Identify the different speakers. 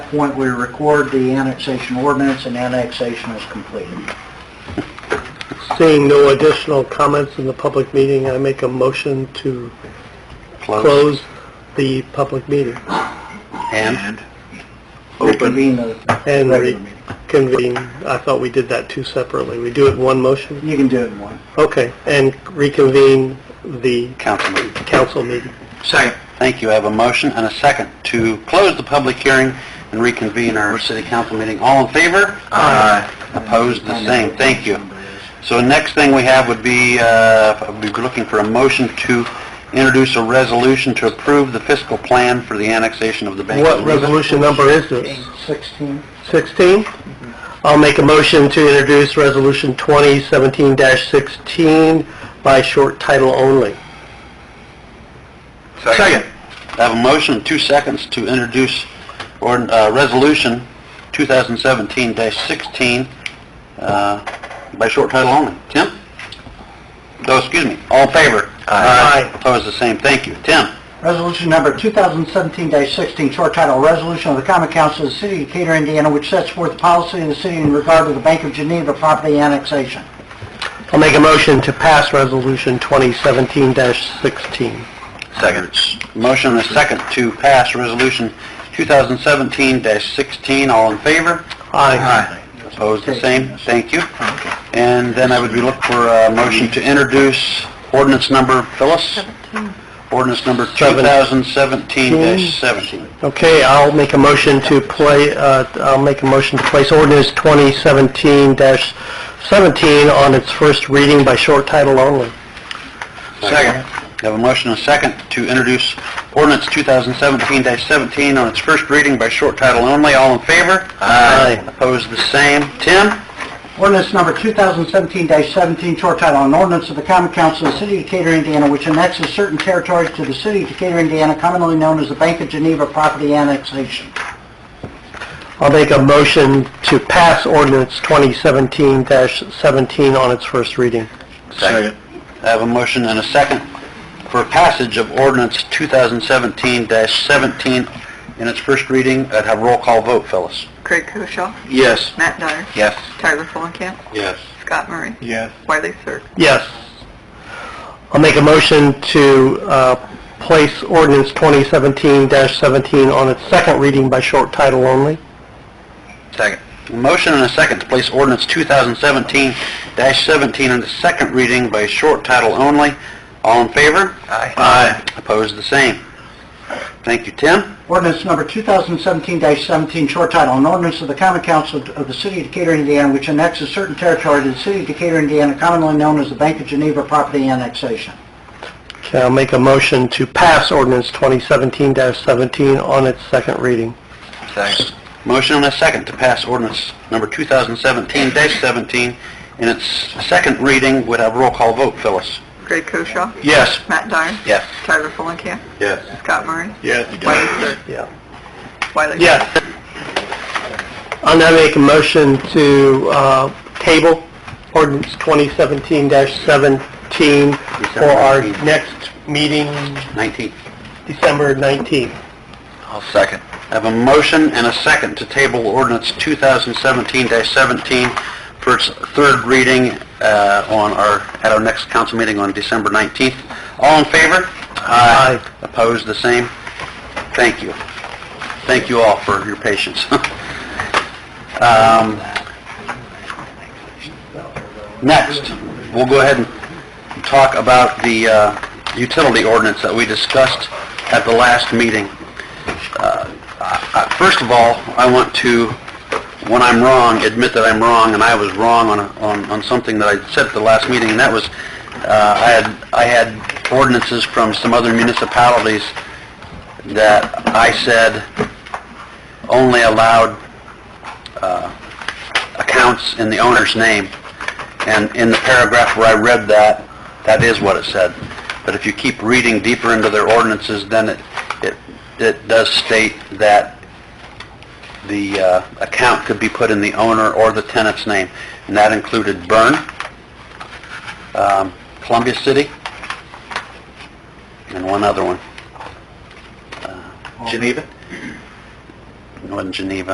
Speaker 1: point we record the annexation ordinance and annexation is completed.
Speaker 2: Seeing no additional comments in the public meeting, I make a motion to close the public meeting
Speaker 3: And?
Speaker 1: Reconvene the
Speaker 2: and
Speaker 1: regular meeting.
Speaker 2: reconvene. I thought we did that two separately. We do it in one motion?
Speaker 1: You can do it in one.
Speaker 2: Okay, and reconvene the
Speaker 3: Council meeting.
Speaker 2: council meeting.
Speaker 1: Second.
Speaker 3: Thank you. I have a motion and a second to close the public hearing and reconvene our city council meeting. All in favor? Aye. Opposed, the same. Thank you. So next thing we have would be, uh, we'd be looking for a motion to introduce a resolution to approve the fiscal plan for the annexation of the Bank of
Speaker 2: What
Speaker 3: Louisville.
Speaker 2: resolution number is this?
Speaker 1: Sixteen.
Speaker 2: 16? I'll make a motion to introduce Resolution 2017-16 by short title only.
Speaker 3: Second. I have a motion, and two seconds, to introduce ord- uh, Resolution 2017-16 uh, by short title only. Tim? Oh, excuse me. All in favor?
Speaker 2: Aye.
Speaker 3: Opposed, the same. Thank you. Tim?
Speaker 1: Resolution number 2017-16, short title, Resolution of the Common Council of the City of Decatur, Indiana, which sets forth the policy of the city in regard to the Bank of Geneva property annexation.
Speaker 2: I'll make a motion to pass Resolution 2017-16.
Speaker 3: Seconds. Motion and a second to pass Resolution 2017-16. All in favor?
Speaker 2: Aye.
Speaker 3: Opposed, the same. Thank you. And then I would be looking for a motion to introduce ordinance number, Phyllis? Ordinance number
Speaker 2: Seven.
Speaker 3: 2017-17.
Speaker 2: Okay, I'll make a motion to play, uh, I'll make a motion to place ordinance 2017-17 on its first reading by short title only.
Speaker 3: Second. I have a motion and a second to introduce ordinance 2017-17 on its first reading by short title only. All in favor?
Speaker 2: Aye.
Speaker 3: Opposed, the same. Tim?
Speaker 1: Ordinance number 2017-17, short title, an ordinance of the common council of the city of Decatur, Indiana, which annexes certain territories to the city of Decatur, Indiana, commonly known as the Bank of Geneva property annexation.
Speaker 2: I'll make a motion to pass ordinance 2017-17 on its first reading.
Speaker 3: Second. I have a motion and a second for passage of ordinance 2017-17 in its first reading. I'd have roll call vote, Phyllis.
Speaker 4: Craig Koshaw,
Speaker 3: Yes.
Speaker 4: Matt Dyer,
Speaker 3: Yes.
Speaker 4: Tyler Fulenkamp,
Speaker 3: Yes.
Speaker 4: Scott Murray,
Speaker 1: Yes.
Speaker 4: Wiley Sirk.
Speaker 2: Yes. I'll make a motion to uh, place ordinance 2017-17 on its second reading by short title only.
Speaker 3: Second. Motion and a second to place ordinance 2017-17 on the second reading by short title only. All in favor? Aye. Aye. Opposed, the same. Thank you, Tim.
Speaker 1: Ordinance number 2017-17, short title, an ordinance of the common council of the city of Decatur, Indiana, which annexes certain territory to the city of Decatur, Indiana, commonly known as the Bank of Geneva property annexation.
Speaker 2: Okay, I'll make a motion to pass ordinance 2017-17 on its second reading.
Speaker 3: Thanks. Motion and a second to pass ordinance number 2017-17 in its second reading. Would have roll call vote, Phyllis.
Speaker 4: Craig Koshaw,
Speaker 3: Yes.
Speaker 4: Matt Dyer,
Speaker 3: Yes.
Speaker 4: Tyler Fulenkamp,
Speaker 3: Yes.
Speaker 4: Scott Murray,
Speaker 3: Yes.
Speaker 4: Wiley Sirk.
Speaker 2: Yeah.
Speaker 4: Wiley Sirk.
Speaker 2: Yes. I'll now make a motion to uh, table ordinance 2017-17 for our
Speaker 3: December 19th.
Speaker 2: next meeting,
Speaker 3: 19.
Speaker 2: December 19th.
Speaker 3: I'll second. I have a motion and a second to table ordinance 2017-17 for its third reading uh, on our, at our next council meeting on December 19th. All in favor? Aye. Opposed, the same? Thank you. Thank you all for your patience. Um, Next, we'll go ahead and talk about the uh, utility ordinance that we discussed at the last meeting. Uh, First of all, I want to, when I'm wrong, admit that I'm wrong, and I was wrong on, a- on, on something that I said at the last meeting, and that was, uh, I had, I had ordinances from some other municipalities that I said only allowed, uh, accounts in the owner's name. And in the paragraph where I read that, that is what it said. But if you keep reading deeper into their ordinances, then it, it, it does state that the uh, account could be put in the owner or the tenant's name. And that included Bern, um, Columbia City, Uh, and one other one. Geneva? wasn't Geneva.